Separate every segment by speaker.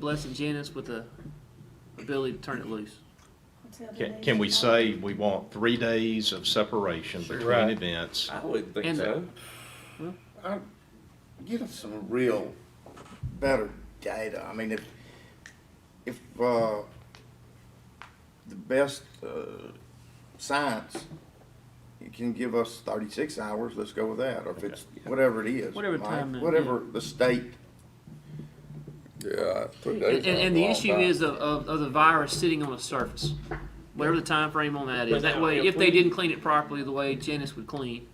Speaker 1: blessing Janice with the ability to turn it loose.
Speaker 2: Can, can we say we want three days of separation between
Speaker 3: Right.
Speaker 2: events?
Speaker 4: I wouldn't think
Speaker 1: And-
Speaker 4: so.
Speaker 5: I, give us some real, better data. I mean, if, if, uh, the best, uh, science, you can give us thirty-six hours, let's go with that, or if it's, whatever it is.
Speaker 1: Whatever
Speaker 5: Mike,
Speaker 1: time it-
Speaker 5: Whatever the state,
Speaker 3: Yeah.
Speaker 1: And, and, and the issue is of, of, of the virus sitting on a surface, whatever the time frame on that is.
Speaker 4: But
Speaker 1: That
Speaker 4: now,
Speaker 1: way,
Speaker 4: if
Speaker 1: if they
Speaker 4: we-
Speaker 1: didn't clean it properly the way Janice would clean,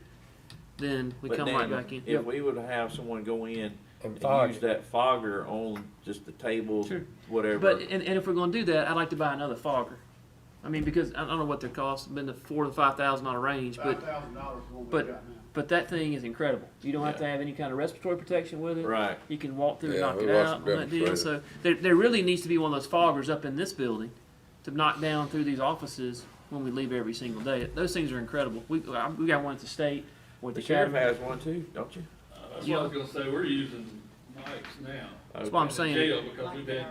Speaker 1: then we
Speaker 4: But
Speaker 1: come
Speaker 4: Daniel,
Speaker 1: right back in.
Speaker 4: If we would have someone go in and
Speaker 3: fog
Speaker 4: use
Speaker 3: it.
Speaker 4: that fogger on just the tables,
Speaker 1: Sure.
Speaker 4: whatever.
Speaker 1: But and, and if we're gonna do that, I'd like to buy another fogger. I mean, because I don't know what their cost, been the four to five thousand dollar range,
Speaker 6: Five
Speaker 1: but
Speaker 6: thousand dollars is what we
Speaker 1: but-
Speaker 6: got now.
Speaker 1: but that thing is incredible. You don't have to
Speaker 4: Yeah.
Speaker 1: have any kind of respiratory protection with it.
Speaker 4: Right.
Speaker 1: You can walk through
Speaker 3: Yeah,
Speaker 1: and knock
Speaker 3: we
Speaker 1: it
Speaker 3: watched
Speaker 1: out
Speaker 3: the
Speaker 1: on that deal.
Speaker 3: demonstrator.
Speaker 1: So there, there really needs to be one of those foggers up in this building to knock down through these offices when we leave every single day. Those things are incredible. We, I- we got one at the state, one at the
Speaker 4: The sheriff
Speaker 1: academy.
Speaker 4: has one too, don't you?
Speaker 7: That's what I was gonna say, we're using mics now.
Speaker 1: That's why I'm
Speaker 4: Okay.
Speaker 1: saying.
Speaker 7: In jail, because we've had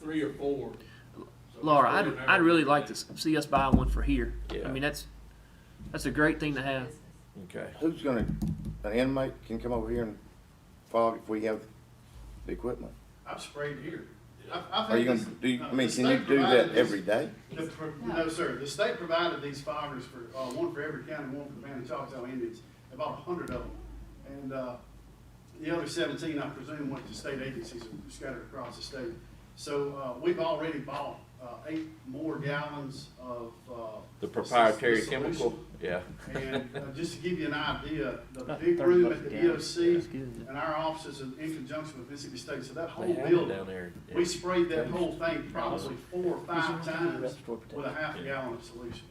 Speaker 7: three or four. So it's
Speaker 1: Laura, I'd,
Speaker 7: extraordinary.
Speaker 1: I'd really like to s- see us buy one for here. I
Speaker 4: Yeah.
Speaker 1: mean, that's, that's a great thing to have.
Speaker 4: Okay.
Speaker 5: who's gonna, an inmate can come over here and fog if we have the equipment?
Speaker 6: I've sprayed here. I've, I've
Speaker 5: Are you
Speaker 6: had
Speaker 5: gonna
Speaker 6: this-
Speaker 5: do,
Speaker 6: no,
Speaker 5: I
Speaker 6: the
Speaker 5: mean, can you
Speaker 6: state
Speaker 5: do
Speaker 6: provided
Speaker 5: that
Speaker 6: this-
Speaker 5: every day?
Speaker 6: the pro- No, sir, the state provided these foggers for, uh, one for every county, one for the Van and Choctaw Indians, about a hundred of them. And, uh, the other seventeen, I presume, went to state agencies scattered across the state. So, uh, we've already bought, uh, eight more gallons of, uh.
Speaker 4: The
Speaker 6: this- this-
Speaker 4: proprietary
Speaker 6: this
Speaker 4: chemical,
Speaker 6: solution.
Speaker 4: yeah.
Speaker 6: And uh, just to give you an idea, the
Speaker 1: About
Speaker 6: big
Speaker 1: 30
Speaker 6: room
Speaker 1: bucks
Speaker 6: at
Speaker 1: a
Speaker 6: the
Speaker 1: gallon. That's
Speaker 6: DOC
Speaker 1: good, isn't it?
Speaker 6: and our offices in in conjunction with Mississippi State, so that
Speaker 4: They
Speaker 6: whole
Speaker 4: have it
Speaker 6: building,
Speaker 4: down there. Yeah.
Speaker 6: we sprayed that whole thing probably four or five times
Speaker 1: respiratory protection?
Speaker 6: with a half a gallon of solution.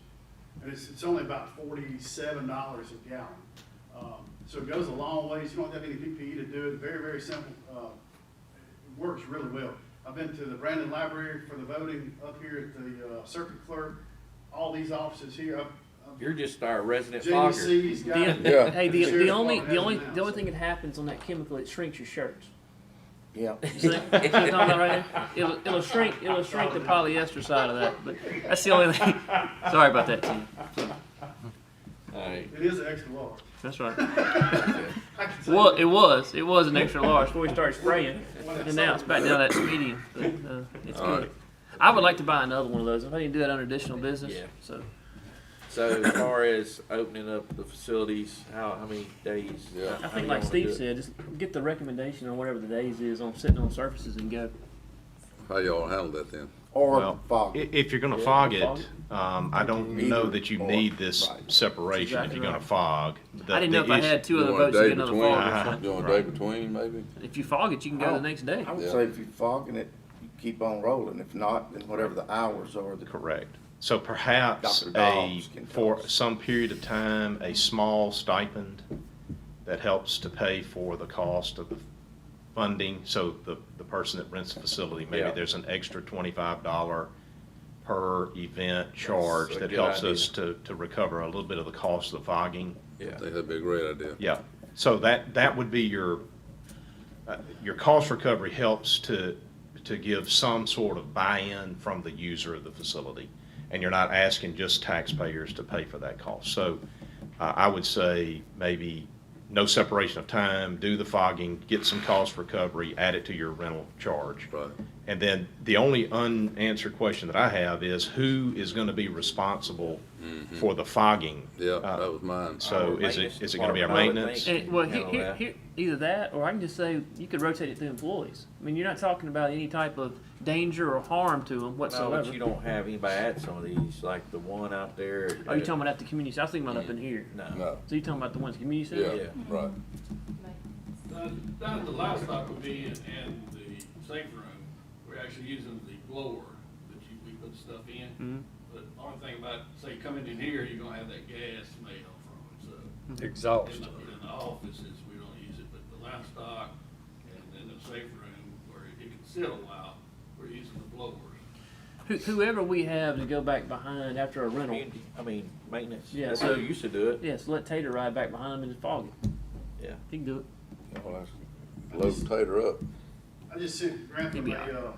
Speaker 6: And it's, it's only about forty-seven dollars a gallon. Um, So it goes a long ways, you don't have any PPE to do it, very, very simple. Uh, It works really well. I've been to the Brandon Library for the voting up here at the uh, circuit clerk, all these offices here. I've- I've-
Speaker 4: You're just our resident fogger.
Speaker 6: JDC's got it.
Speaker 1: The- Hey, the, the
Speaker 6: Sheriff's
Speaker 1: only, the
Speaker 6: Department has
Speaker 1: only,
Speaker 6: it now,
Speaker 1: the only
Speaker 6: so.
Speaker 1: thing that happens on that chemical, it shrinks your shirts.
Speaker 5: Yeah.
Speaker 1: You see, see what I'm talking about right there? It'll, it'll shrink, it'll shrink the polyester side of that, but that's the only thing. Sorry about that, Tim.
Speaker 4: Alright,
Speaker 6: It is an extra large.
Speaker 1: That's right.
Speaker 6: I can tell
Speaker 1: Well,
Speaker 6: you.
Speaker 1: it was, it was an extra large before we started spraying, and now it's back down that medium, but, uh, it's good. I would like to buy another one of those. I need to do that under additional business,
Speaker 4: Yeah.
Speaker 1: so.
Speaker 4: so as far as opening up the facilities, how, how many days?
Speaker 3: Yeah.
Speaker 1: I
Speaker 4: how
Speaker 1: think
Speaker 4: y'all
Speaker 1: like
Speaker 4: wanna do
Speaker 1: Steve
Speaker 4: it?
Speaker 1: said, just get the recommendation on whatever the days is on sitting on surfaces and go.
Speaker 8: How y'all handle that then?
Speaker 5: Or
Speaker 2: Well,
Speaker 5: fog.
Speaker 2: I- if you're gonna
Speaker 4: Yeah,
Speaker 2: fog
Speaker 4: fog
Speaker 2: it, um, I don't
Speaker 5: Either
Speaker 2: know that you
Speaker 5: or.
Speaker 2: need this
Speaker 5: Right.
Speaker 2: separation if
Speaker 1: Exactly
Speaker 2: you're gonna
Speaker 1: right.
Speaker 2: fog. The- Uh-huh.
Speaker 1: I didn't know if
Speaker 2: the
Speaker 1: I
Speaker 2: issue-
Speaker 1: had two
Speaker 8: You
Speaker 1: other
Speaker 8: want a
Speaker 1: votes to
Speaker 8: day
Speaker 1: get another
Speaker 8: between?
Speaker 1: fog.
Speaker 8: You want a day between, maybe?
Speaker 1: If you fog it, you can go the next day.
Speaker 5: I would
Speaker 8: Yeah.
Speaker 5: say if you're fogging it, you keep on rolling. If not, then whatever the hours are, the
Speaker 2: Correct. So perhaps
Speaker 5: Dr.
Speaker 2: a,
Speaker 5: Dobbs can tell
Speaker 2: for
Speaker 5: us.
Speaker 2: some period of time, a small stipend that helps to pay for the cost of the funding. So the, the person that rents the facility, maybe
Speaker 4: Yeah.
Speaker 2: there's an extra twenty-five dollar per event charge
Speaker 4: a
Speaker 2: that
Speaker 4: good
Speaker 2: helps
Speaker 4: idea.
Speaker 2: us to, to recover a little bit of the cost of the fogging.
Speaker 8: I
Speaker 4: Yeah,
Speaker 8: think that'd be a great idea.
Speaker 2: Yeah, so that, that would be your, uh, your cost recovery helps to, to give some sort of buy-in from the user of the facility. And you're not asking just taxpayers to pay for that cost. So uh, I would say maybe no separation of time, do the fogging, get some cost recovery, add it to your rental charge.
Speaker 8: Right.
Speaker 2: And then the only unanswered question that I have is who is going to be responsible for the fogging?
Speaker 8: Mm-hmm. Yeah,
Speaker 2: Uh,
Speaker 8: that was mine.
Speaker 2: So is
Speaker 4: Our
Speaker 2: it,
Speaker 4: maintenance
Speaker 2: is it gonna be our
Speaker 4: department.
Speaker 2: maintenance?
Speaker 4: I would
Speaker 1: And, well,
Speaker 4: handle
Speaker 1: here, here,
Speaker 4: that.
Speaker 1: here, either that, or I can just say you could rotate it through employees. I mean, you're not talking about any type of danger or harm to them
Speaker 4: no, but
Speaker 1: whatsoever.
Speaker 4: you don't have anybody at some of these, like the one out there. at-
Speaker 1: Are you talking about at the community? I was thinking about up in here.
Speaker 4: No,
Speaker 8: No,
Speaker 1: So you're talking about the ones community
Speaker 8: yeah,
Speaker 1: center?
Speaker 8: right.
Speaker 7: Down- Down at the livestock would be in, in the safe room, we're actually using the blower that you, we put stuff
Speaker 1: Mm-hmm.
Speaker 7: in. But the only thing about, say, coming in here, you're gonna have that gas smell from it, so. In
Speaker 1: Mm-hmm.
Speaker 3: Exhaust.
Speaker 7: the, in the offices, we don't use it, but the livestock and in the safe room, where it can sit a while, we're using the blowers.
Speaker 1: Who- Whoever we have to go back behind after a rental,
Speaker 4: Community- I mean, maintenance,
Speaker 1: Yeah,
Speaker 4: that's
Speaker 1: so-
Speaker 4: how you used to do it,
Speaker 1: yes, let Tater ride back behind him and just fog it.
Speaker 4: yeah.
Speaker 1: He can do it.
Speaker 8: Well, that's- Load Tater up.
Speaker 6: I just sent Grandpa
Speaker 1: Maybe
Speaker 6: a,
Speaker 1: I-
Speaker 6: uh,